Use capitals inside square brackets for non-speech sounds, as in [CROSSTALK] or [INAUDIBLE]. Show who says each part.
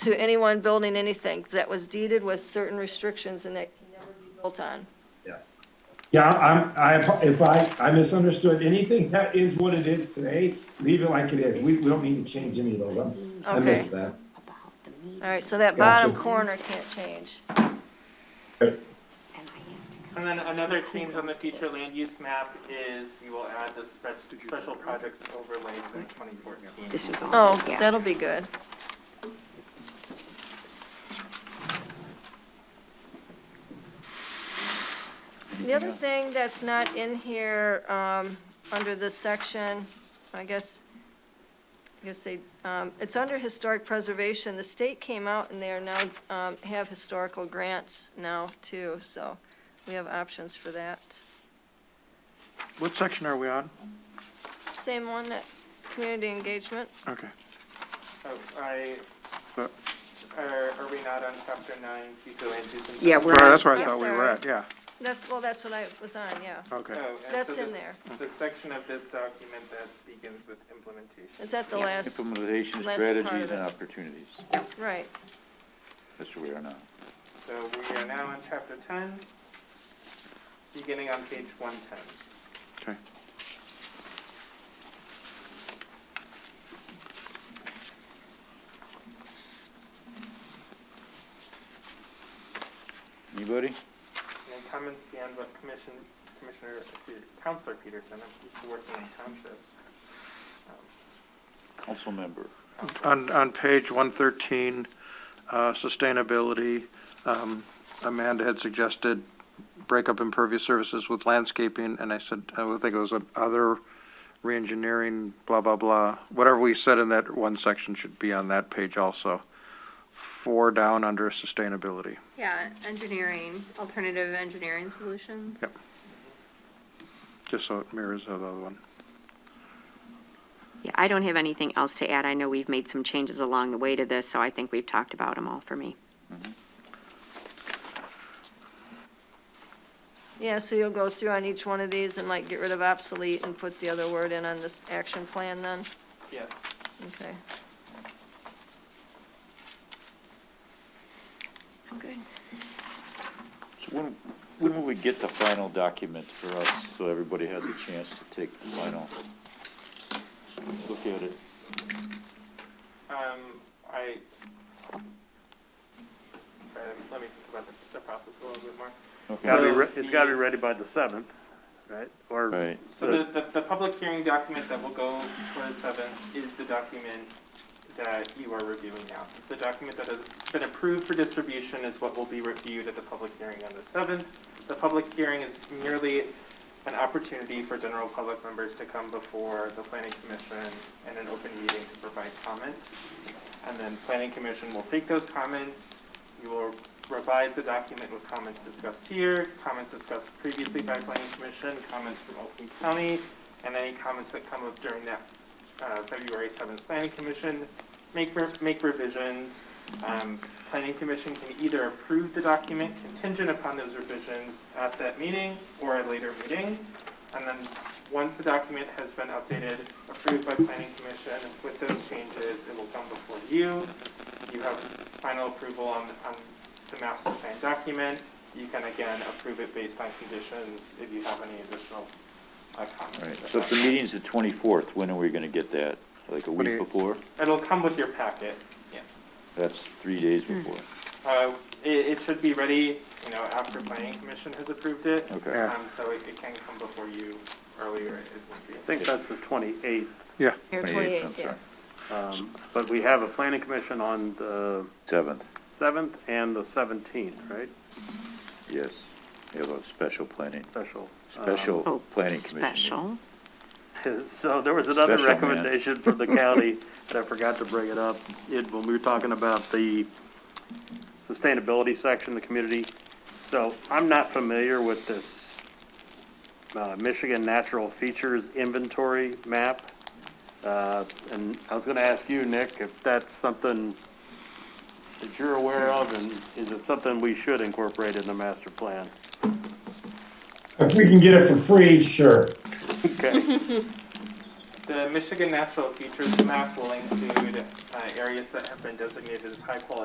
Speaker 1: to anyone building anything that was deeded with certain restrictions and that can never be built on.
Speaker 2: Yeah, I'm, I, if I, I misunderstood anything, that is what it is today, leave it like it is, we, we don't need to change any of those, I'm- I
Speaker 1: Okay.
Speaker 2: missed that.
Speaker 3: about the meeting,
Speaker 1: All right, so that bottom
Speaker 2: Gotcha.
Speaker 1: corner can't change.
Speaker 3: and I asked her.
Speaker 4: And then another change on the future land use map is we will add the spe- special projects overlay in twenty fourteen.
Speaker 3: This was all.
Speaker 1: Oh,
Speaker 3: yeah.
Speaker 1: that'll be good. The other thing that's not in here, um, under this section, I guess, I guess they, um, it's under historic preservation. The state came out and they are now, um, have historical grants now too, so we have options for that.
Speaker 5: What section are we on?
Speaker 1: Same one, that community engagement.
Speaker 5: Okay.
Speaker 4: Oh, I,
Speaker 5: But-
Speaker 4: are, are we not on chapter nine, future land use? and-
Speaker 3: Yeah, we're
Speaker 5: Right, that's where I
Speaker 1: Yes,
Speaker 5: thought we
Speaker 1: sir.
Speaker 5: were at, yeah,
Speaker 1: That's, well, that's what I was on, yeah.
Speaker 5: okay.
Speaker 4: Oh, and
Speaker 1: That's
Speaker 4: so
Speaker 1: in
Speaker 4: this-
Speaker 1: there.
Speaker 4: The section of this document that begins with implementation.
Speaker 1: Is that the last,
Speaker 6: Implementation
Speaker 1: Last part of
Speaker 6: strategies and
Speaker 1: it.
Speaker 6: opportunities.
Speaker 1: right?
Speaker 6: That's where we are now.
Speaker 4: So we are now on chapter ten, beginning on page one ten.
Speaker 5: Okay.
Speaker 6: Anybody?
Speaker 4: Any comments beyond what commission, Commissioner, Counselor Peterson, I'm used to working in townships. Um,
Speaker 6: Council member.
Speaker 5: On, on page 113, uh, sustainability, um, Amanda had suggested break up impervious services with landscaping, and I said, I would think it was other reengineering, blah, blah, blah. Whatever we said in that one section should be on that page also. Four down under sustainability.
Speaker 7: Yeah, engineering, alternative engineering solutions.
Speaker 5: Yep. just so it mirrors the other one.
Speaker 3: Yeah, I don't have anything else to add. I know we've made some changes along the way to this, so I think we've talked about them all for me.
Speaker 1: Yeah, so you'll go through on each one of these and like get rid of obsolete and put the other word in on this action plan then?
Speaker 4: Yes,
Speaker 1: Okay.
Speaker 3: I'm good.
Speaker 6: So when, when will we get the final document for us, so everybody has a chance to take the final? Look at it.
Speaker 4: um, I, sorry, let me- let me think about the, the process a little bit more.
Speaker 6: Okay.
Speaker 8: Gotta be,
Speaker 4: So
Speaker 8: re- it's gotta be
Speaker 4: the-
Speaker 8: ready by the seventh, right? Or,
Speaker 6: Right.
Speaker 4: So the, the, the public hearing document that will go for the seventh is the document that you are reviewing now. It's The document that has been approved for distribution is what will be reviewed at the public hearing on the seventh. The public hearing is merely an opportunity for general public members to come before the planning commission and an open meeting to provide comment. And then planning commission will take those comments, you will revise the document with comments discussed here, comments discussed previously by planning commission, comments from Oakland County, and any comments that come up during that, uh, February seventh planning commission. Make, re- make revisions, um, planning commission can either approve the document contingent upon those revisions at that meeting or a later meeting. And then, once the document has been updated, approved by planning commission with those changes, it will come before you. You have final approval on, on the master plan document. You can again approve it based on conditions if you have any additional uh,
Speaker 6: All right,
Speaker 4: comments.
Speaker 6: so if the meeting's the twenty-fourth, when are we gonna get that? Like a
Speaker 5: Twenty-
Speaker 6: week before?
Speaker 4: It'll come with your packet.
Speaker 6: That's three days
Speaker 1: Hmm.
Speaker 6: before.
Speaker 4: Uh, It, it should be ready, you know, after planning commission has approved it.
Speaker 6: Okay.
Speaker 5: Yeah.
Speaker 4: Um, So it it can come before you earlier if need be.
Speaker 8: I think that's the twenty-eighth.
Speaker 5: Yeah,
Speaker 1: Here,
Speaker 6: 28th, I'm
Speaker 1: 28th, yeah.
Speaker 6: sorry.
Speaker 8: Um, but we have a planning commission on the
Speaker 6: Seventh,
Speaker 8: seventh and the seventeenth, right?
Speaker 6: yes. We have a special planning,
Speaker 8: Special. um,
Speaker 6: special
Speaker 3: Oh,
Speaker 6: planning commission. meeting.
Speaker 3: special.
Speaker 8: So there was another
Speaker 6: Special man.
Speaker 8: recommendation from the
Speaker 6: [LAUGHS]
Speaker 8: county that I forgot to bring it up. It, when we were talking about the sustainability section, the community. So I'm not familiar with this, uh, Michigan Natural Features Inventory map. Uh, and I was gonna ask you, Nick, if that's something that you're aware of and is it something we should incorporate in the
Speaker 6: [LAUGHS]
Speaker 8: master plan?
Speaker 2: If we can get it for free, sure,
Speaker 8: Okay.
Speaker 4: The Michigan Natural Features Map will include uh, areas that have been designated as high-quality